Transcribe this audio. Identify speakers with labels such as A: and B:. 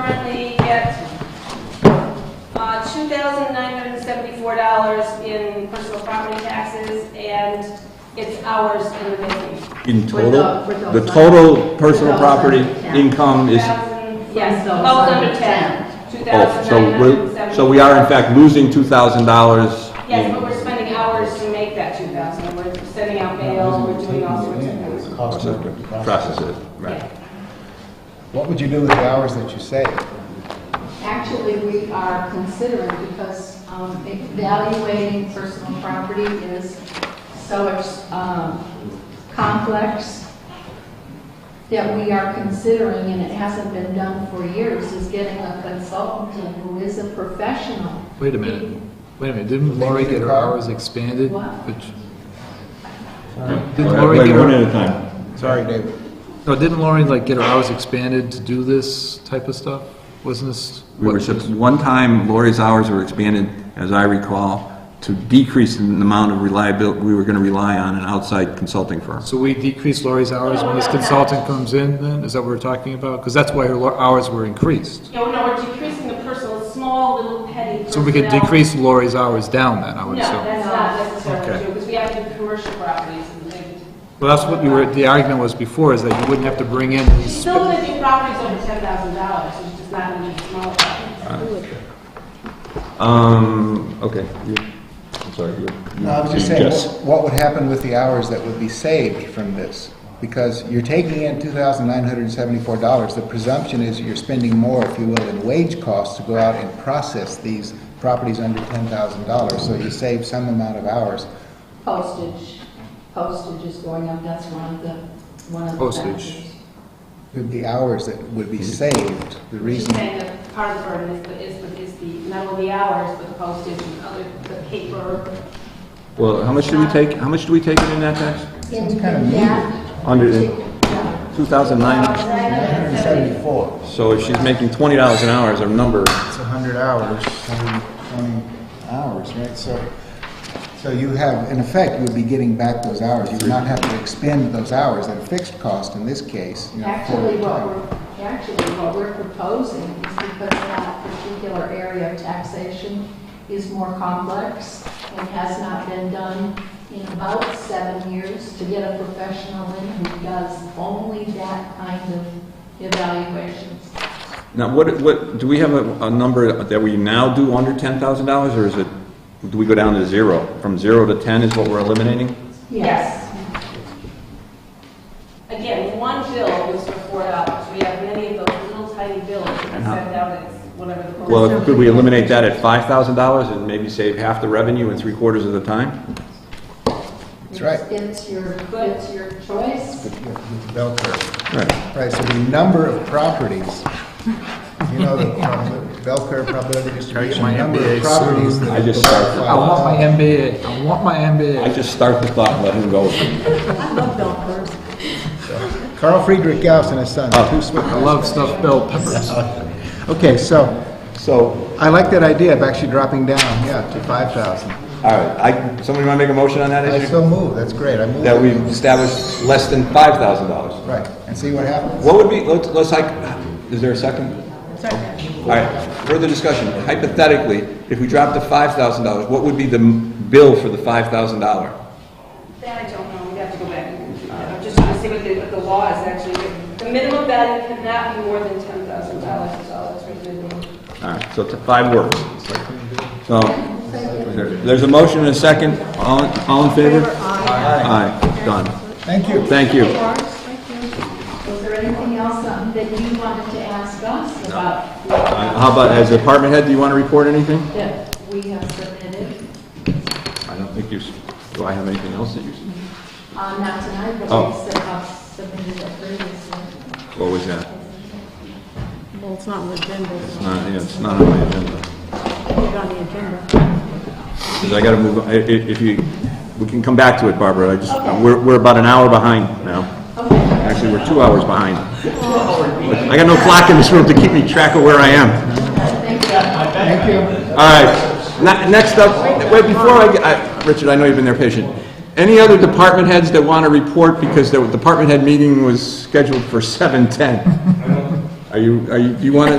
A: currently get uh, $2,974 in personal property taxes, and it's ours in the making.
B: In
C: Without-
B: total,
C: without
B: the
C: sign-
B: total personal
C: without
B: property
C: sign, yeah.
B: income is,
A: 2,000 Yes,
C: From
A: oh,
C: those
A: under 10.
B: oh, so we're, so we are in fact losing two thousand dollars.
A: Yes, but we're spending hours to make that 2,000. We're sending out mail, we're doing all sorts of things.
B: Processes, right.
A: Yeah.
D: What would you do with the hours that you save?
C: Actually, we are considering, because um, evaluating personal property is so um, complex that we are considering, and it hasn't been done for years, is getting a consultant in who is a professional.
E: Wait a minute, wait a minute, didn't Lori get her hours expanded?
C: What?
E: Which-
B: Wait,
E: Didn't Lori
B: wait,
E: get
B: one at a
E: her,
B: time.
D: Sorry, David.
E: no, didn't Lori like get her hours expanded to do this type of stuff? Wasn't this?
B: We were,
E: what-
B: sup- one time Lori's hours were expanded, as I recall, to decrease the amount of reliability, we were gonna rely on an outside consulting firm.
E: So we decrease Lori's hours when this consultant comes in then? Is that what we're talking about? Because that's why her lo- hours were increased.
A: Yeah, well, no, we're decreasing the personal, small little petty.
E: So we could
A: personnel.
E: decrease Lori's hours down then, I
A: No,
E: would assume.
A: that's not necessarily
E: Okay.
A: true, because we have to do commercial properties and things.
E: Well, that's what you were, the argument was before, is that you wouldn't have to bring in
A: She's
E: these.
A: still gonna do properties over ten thousand dollars, which is not gonna be small properties.
B: Um, okay. you- I'm sorry. you- you-
D: No, I was just
B: you
D: saying, what- what would happen with the hours that would be saved from this? Because you're taking in $2,974. The presumption is you're spending more, if you will, in wage costs to go out and process these properties under $10,000. So you save some amount of hours.
C: Postage, postage is going up, that's one of the, one of the
E: Postage.
C: factors.
D: The hours that would be saved, the
A: She's
D: reason...
A: saying that part of the burden is the, is the, is the, not only the hours, but the postage and other, the paper.
B: Well, how much do we take, how much do we take in that tax?
C: In
D: It's kinda
C: in
D: mean.
C: that,
B: Under
C: yeah,
B: two thousand nine,
A: $970.
D: 174.
B: so if she's making twenty dollars an hour as our number,
D: It's 100 hours, 120 hours, right? So, so you have, in effect, you'd be getting back those hours. You would not have to expend those hours at a fixed cost in this case. you know, for
C: Actually, what
D: time.
C: we're, actually, what we're proposing is because that particular area of taxation is more complex and has not been done in about seven years to get a professional in who does only that kind of evaluations.
B: now what, what, do we have a, a number that we now do under ten thousand dollars, or is it, do we go down to zero? From zero to ten is what we're eliminating?
A: Yes. Again, one bill was for four dollars, we have many of those little tiny bills that are sent out as whatever the.
B: Well, could we eliminate that at five thousand dollars and maybe save half the revenue in three quarters of the time?
D: That's right.
C: It's your, it's your choice.
D: With- with the Bell curve.
B: Right.
D: Right, so the number of properties, you know, the prob- bell curve probability distribution,
E: my
D: the number
E: MBA
D: of properties
E: soon.
D: that
B: I
D: are
B: just
D: below
B: started.
E: I want my
D: 5,000.
E: MBA, I want my
B: I
E: MBA.
B: just start the thought and let him go.
C: I love bell curves.
D: Carl Friedrich Gauss and his son, two Swiss.
E: I love stuffed bell peppers.
D: Okay, so, so I like that idea of actually dropping down, yeah, to 5,000.
B: All right, I, somebody want to make a motion on that
D: I
B: issue?
D: so move, that's great, I move.
B: That we establish less than five thousand dollars?
D: Right, and see what happens.
B: What would be, let's, let's like, is there a second? All right, further discussion. Hypothetically, if we dropped to five thousand dollars, what would be the m- bill for the five thousand dollar?
A: That I don't know, we have to go back. and do that. I'm just trying to see what the, what the law is actually. The minimum value cannot be more than ten thousand dollars, is all that's written in.
B: All right, so t- five words. So, there's a motion and a second. All, all in favor? Aye. Aye, done.
D: Thank you.
B: Thank you.
C: Was there anything else um, that you wanted to ask us about?
B: Uh, How about, as a department head, do you want to report anything?
C: That we have submitted?
B: I don't think you, s- do I have anything else that you, s-
C: Uh, not tonight, but
B: Oh.
C: we have submitted it previously.
B: what was that?
F: Well, it's not on the agenda. It's
B: Not, yeah, it's not on my agenda.
F: Put it on the agenda.
B: 'Cause I gotta move, on. I- i- if you, we can come back to it, Barbara, I just, we're, we're about an hour behind now. Actually, we're two hours behind. I got no clock in this room to keep me track of where I am.
D: Thank you.
B: All right, Ne- next up, wait, before I, get- I- Richard, I know you've been there patient. Any other department heads that want to report, because the department head meeting was scheduled for 7:10? Are you, are you, do you want to